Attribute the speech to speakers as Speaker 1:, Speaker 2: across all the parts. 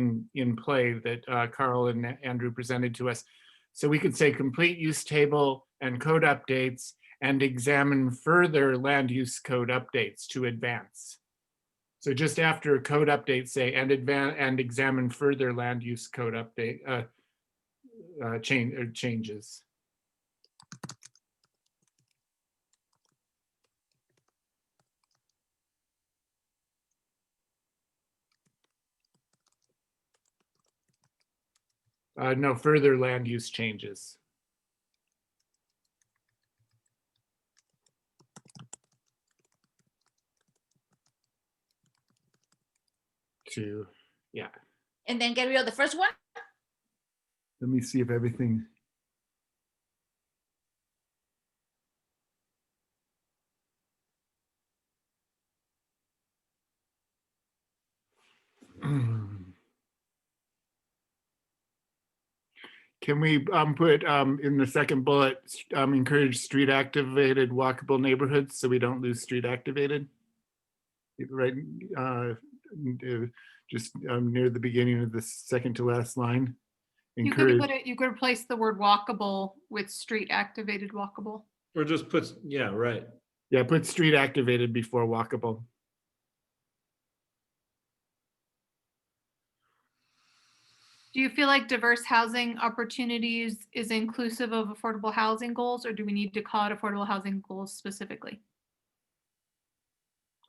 Speaker 1: in, in play that uh, Carl and Andrew presented to us. So we could say complete use table and code updates and examine further land use code updates to advance. So just after code updates, say, and advan, and examine further land use code update, uh, uh, change, or changes. Uh, no, further land use changes. To,
Speaker 2: and then get rid of the first one?
Speaker 1: let me see if everything. Can we um, put um, in the second bullet, um, encourage street activated walkable neighborhoods so we don't lose street activated? Right, uh, n- uh, just um, near the beginning of the second to last line.
Speaker 3: You could
Speaker 1: Encourage,
Speaker 3: put it, you could replace the word walkable with street activated walkable.
Speaker 4: Or just puts, yeah, right.
Speaker 1: yeah, put street activated before walkable.
Speaker 3: Do you feel like diverse housing opportunities is inclusive of affordable housing goals, or do we need to call it affordable housing goals specifically?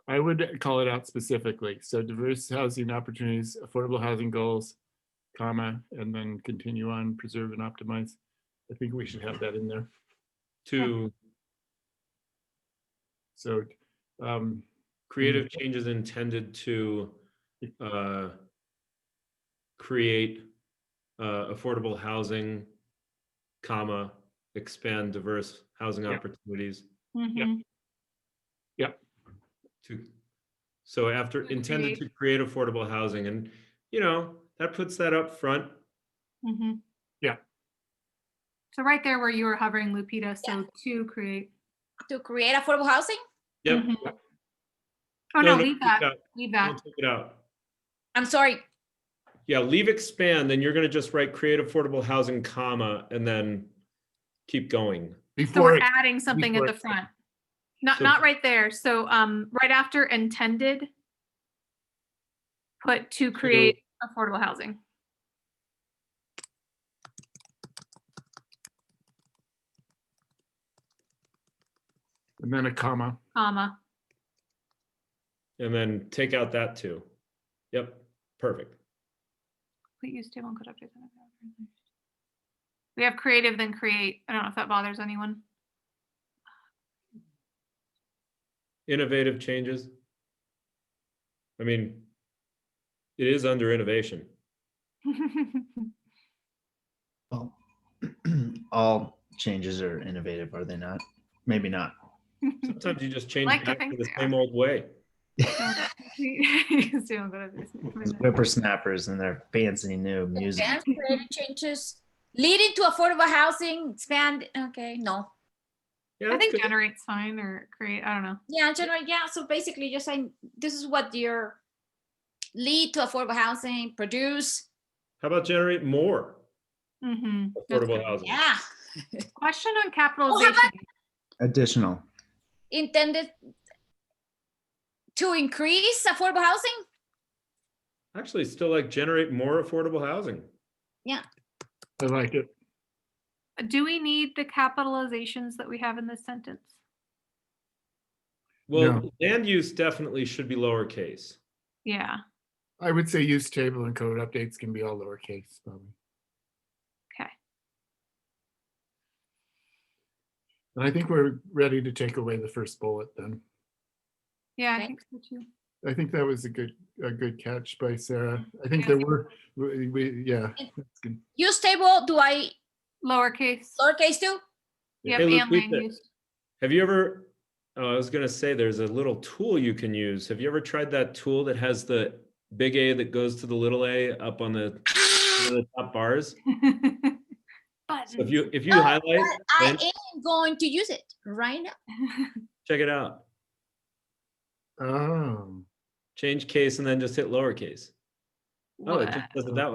Speaker 1: I would call it out specifically. So diverse housing opportunities, affordable housing goals, comma, and then continue on, preserve and optimize. I think we should have that in there.
Speaker 4: To
Speaker 1: So um,
Speaker 4: creative changes intended to uh, create uh, affordable housing, comma, expand diverse housing
Speaker 1: Yeah.
Speaker 4: opportunities
Speaker 3: Mhm.
Speaker 4: to, so after
Speaker 3: To
Speaker 4: intended to create affordable housing and, you know, that puts that up front.
Speaker 3: Mhm.
Speaker 1: Yeah.
Speaker 3: So right there where you were hovering, Lupita, so to create.
Speaker 2: To create affordable housing?
Speaker 4: Yep.
Speaker 3: Mhm. Oh, no, leave
Speaker 4: take it
Speaker 3: that,
Speaker 4: out.
Speaker 3: leave
Speaker 4: Don't
Speaker 3: that.
Speaker 4: take it out.
Speaker 2: I'm sorry,
Speaker 4: Yeah, leave expand, then you're gonna just write create affordable housing, comma, and then keep going.
Speaker 3: So
Speaker 1: before,
Speaker 3: we're
Speaker 1: it-
Speaker 3: adding something at
Speaker 1: before
Speaker 3: the front. Not,
Speaker 4: So-
Speaker 3: not right there. So, um, right after intended, put to create affordable housing.
Speaker 1: and then a comma.
Speaker 3: comma.
Speaker 4: And then take out that too. Yep, perfect.
Speaker 3: We use table and could update them. We have creative then create. I don't know if that bothers anyone.
Speaker 4: Innovative changes. I mean, it is under innovation.
Speaker 5: Well, all changes are innovative, are they not? Maybe not.
Speaker 4: Sometimes you just change
Speaker 3: Like to
Speaker 4: back
Speaker 3: think
Speaker 4: to the
Speaker 3: they
Speaker 4: same old way.
Speaker 3: Use table and could update them.
Speaker 5: Whippersnappers and their fancy new music.
Speaker 2: advance creative changes leading to affordable housing, expand, okay, no.
Speaker 4: Yeah,
Speaker 3: I
Speaker 4: that's
Speaker 3: think
Speaker 4: good.
Speaker 3: generate's fine or create, I don't know.
Speaker 2: Yeah, general, yeah, so basically just saying, this is what your lead to affordable housing, produce,
Speaker 4: How about generate more
Speaker 3: Mhm, that's
Speaker 4: affordable
Speaker 3: good.
Speaker 4: housing?
Speaker 2: yeah,
Speaker 3: Question on capitalization.
Speaker 5: Additional.
Speaker 2: intended to increase affordable housing?
Speaker 4: Actually, still like generate more affordable housing.
Speaker 1: I like it.
Speaker 3: Do we need the capitalizations that we have in this sentence?
Speaker 4: Well, land use definitely should be lowercase.
Speaker 3: Yeah,
Speaker 1: I would say use table and code updates can be all lowercase. probably.
Speaker 3: okay.
Speaker 1: And I think we're ready to take away the first bullet then.
Speaker 3: Yeah, I
Speaker 2: Okay.
Speaker 3: think so too.
Speaker 1: I think that was a good, a good catch by Sarah. I think
Speaker 3: Yeah.
Speaker 1: there were, we, we- yeah. that's good.
Speaker 2: Use table, do I
Speaker 3: Lowercase.
Speaker 2: lowercase too?
Speaker 3: Yep,
Speaker 4: Hey,
Speaker 3: and land
Speaker 4: Lupita.
Speaker 3: use.
Speaker 4: Have you ever, oh, I was gonna say, there's a little tool you can use. Have you ever tried that tool that has the big A that goes to the little a up on the, one of the top bars? So if
Speaker 3: Button.
Speaker 4: you, if you
Speaker 2: Oh,
Speaker 4: highlight,
Speaker 2: But I
Speaker 4: then-
Speaker 2: am going to use it right now.
Speaker 4: check it out,
Speaker 1: Oh, Um,
Speaker 4: change case and then just hit lowercase. Oh, it just does it that way.